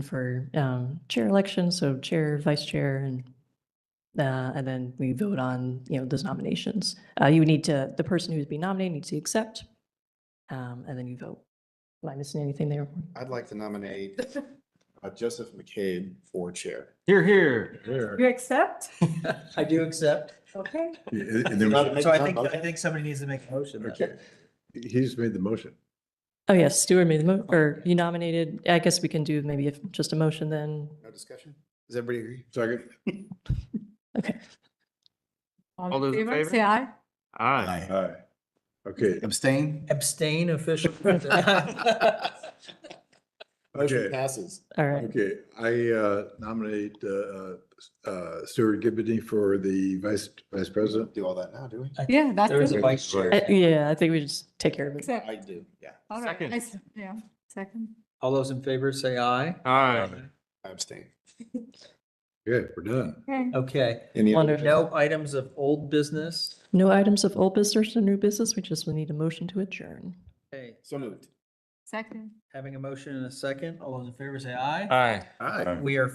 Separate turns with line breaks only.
for um, chair election, so chair, vice chair, and uh, and then we vote on, you know, those nominations. Uh, You would need to, the person who's being nominated needs to accept, um, and then you vote. Am I missing anything there?
I'd like to nominate uh, Joseph McCabe for chair.
Here, here.
You accept?
I do accept.
Okay.
Yeah, And and there was,
So I think, I think somebody needs to make a motion. then.
okay, he just made the motion.
Oh, yes, Stuart made the mo, or you nominated, I guess we can do maybe if- just a motion then.
No discussion? Does everybody agree?
Second,
Okay.
All those in favor?
Say aye.
Aye.
aye. Okay,
Abstain?
Abstain official.
Motion
okay,
passes.
All right.
okay. I uh, nominate uh, uh, Stuart Gibbity for the vice, vice
We don't
president.
do all that now, do we?
Yeah, that's
There is a
it.
vice chair.
Uh, Yeah, I think we just take care of it.
Accept.
I do, yeah.
All right.
Second.
I s- Yeah, second.
All those in favor say aye.
Aye.
I abstain.
Okay, we're done.
Okay.
Okay,
Any other-
Wonderful.
no items of old business.
No items of old business or new business, we just will need a motion to adjourn.
Okay,
So moved.
Second.
having a motion in a second, all those in favor say aye.
Aye.
Aye.
We are